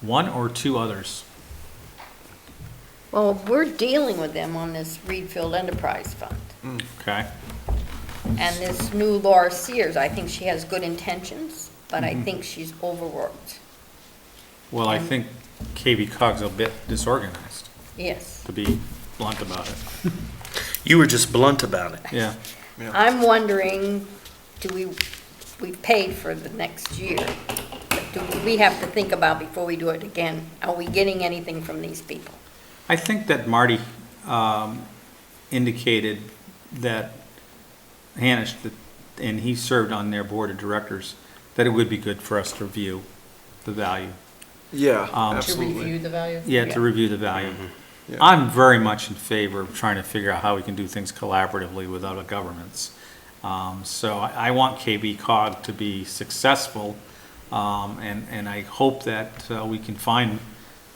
One or two others? Well, we're dealing with them on this Reedfield Enterprise Fund. Okay, And this new Laura Sears, I think she has good intentions, but I think she's overworked. well, I think KB Cog's a bit disorganized, Yes. to be blunt about it. You were just blunt about it. Yeah, I'm wondering, do we, we paid for the next year. but Do we have to think about before we do it again, are we getting anything from these people? I think that Marty um, indicated that Hanish, that- and he served on their board of directors, that it would be good for us to review the value. Yeah, Um, To absolutely. the value? Yeah, to review the value. Mm-hmm. Yeah. I'm very much in favor of trying to figure out how we can do things collaboratively with other governments. Um, so I, I want KB cog to be successful, um, and, and I hope that, uh, we can find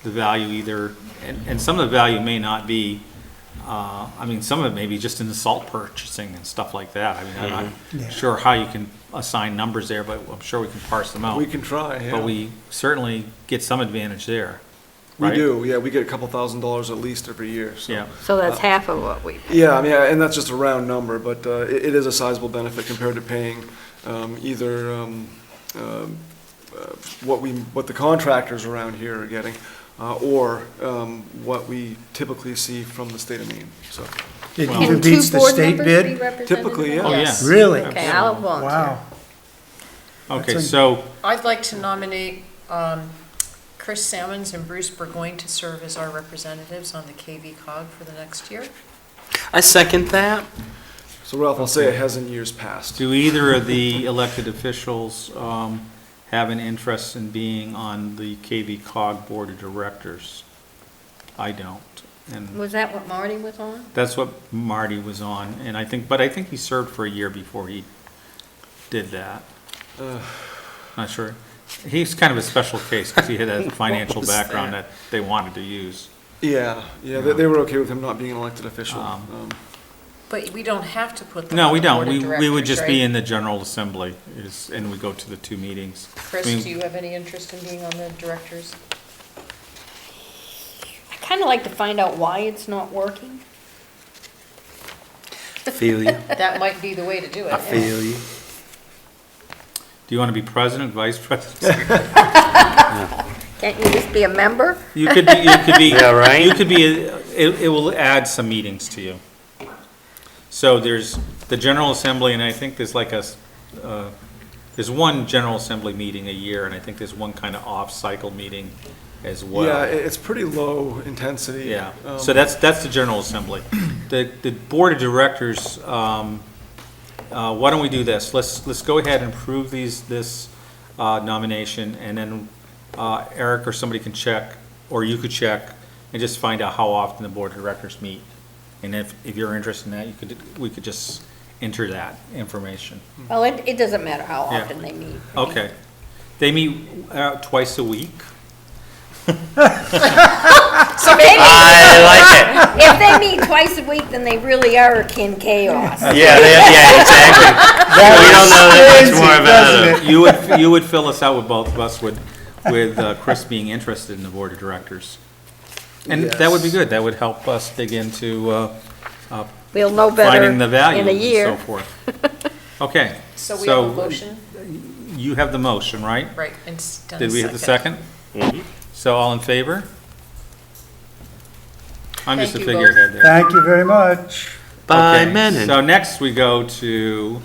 the value either, and, and some of the value may not be, uh, I mean, some of it may be just in the salt purchasing and stuff like that. I mean, I'm not sure how you can assign numbers there, but I'm sure we can parse them out. We can try, yeah. But we certainly get some advantage there. We right? do, yeah, we get a couple thousand dollars at least every year, so. Yeah, So that's half of what we. Yeah, I mean, and that's just a round number, but uh, it it is a sizable benefit compared to paying um, either um, um, uh, what we, what the contractors around here are getting, uh, or um, what we typically see from the state of Maine, so. It Well- even beats the state bid? Typically, yeah. Oh, yeah. Really? Okay, I'll volunteer. Wow. okay, That's a- so, I'd like to nominate um, Chris Salmons and Bruce Burgoyne to serve as our representatives on the KV cog for the next year. I second that. So Ralph, I'll say it has in years past. do either of the elected officials um, have an interest in being on the KV cog board of directors? I don't, and Was that what Marty was on? that's what Marty was on, and I think, but I think he served for a year before he did that. Not sure. He's kind of a special case, because he had a financial was that? background that they wanted to use. Yeah, yeah, they they were okay with him not being an elected official. Um, Um, But we don't have to put them No, on we the don't. board of We, we would directors, just be right? in the general assembly is, and we go to the two meetings. I Chris, mean, do you have any interest in being on the directors? I kind of like to find out why it's not working. Feel you. That might be the way to do it. I feel you. Do you want to be president, vice president? Can't you just be a member? You could be, you could be. Yeah, right? You could be, it, it will add some meetings to you. So there's the general assembly, and I think there's like a, s- uh, there's one general assembly meeting a year, and I think there's one kind of off-cycle meeting as well. Yeah, it- it's pretty low intensity. Yeah, Um, so that's, that's the general assembly. The, the board of directors, um, uh, why don't we do this? Let's, let's go ahead and approve these, this uh, nomination, and then uh, Eric or somebody can check, or you could check, and just find out how often the board of directors meet. And if, if you're interested in that, you could, we could just enter that information. Well, it, it doesn't matter how Yeah. often they meet. I mean, Okay. They meet uh, twice a week. So maybe I like it. if they meet twice a week, then they really are in chaos. Yeah, they- yeah, exactly. we don't know that much more about it. You would, you would fill us out with both of us with, with uh, Chris being interested in the board of directors. And that would be Yes. good, that would help us dig into uh, We'll know better finding in the value a and so year. forth. Okay. So we have a motion, You have the motion, right? right, and s- done Did we have the second? So all in favor? I'm just a Thank you both. figurehead there. Thank you very much. By Okay, Menon. So next we go to,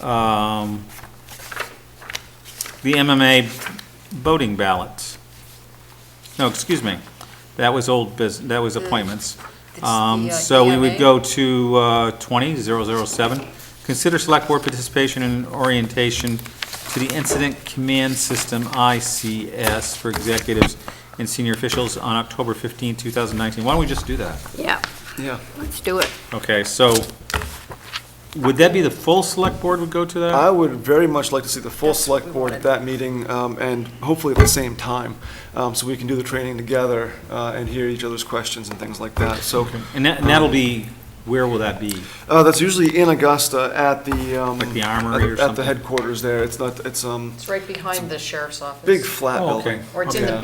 um, the MMA voting ballots. No, excuse me, that was old business, that was appointments. It's the, Um, uh, so we would EMA. go to, uh, twenty zero zero seven. Consider select board participation and orientation to the Incident Command System, ICS, for executives and senior officials on October fifteenth, two thousand nineteen. Why don't we just do that? Yeah, Yeah. let's do it. Okay, so would that be the full select board would go to that? I would very much like to see the full That's what select we board at wanted. that meeting, um, and hopefully at the same time, um, so we can do the training together, uh, and hear each other's questions and things like that, so. And that, and that'll be, where will that be? Uh, that's usually in Augusta at the, um. Like the armory at- or At something? the headquarters there, it's not, it's, um, It's right behind the sheriff's office. big flat Oh, okay. building. Or it's in the Yeah.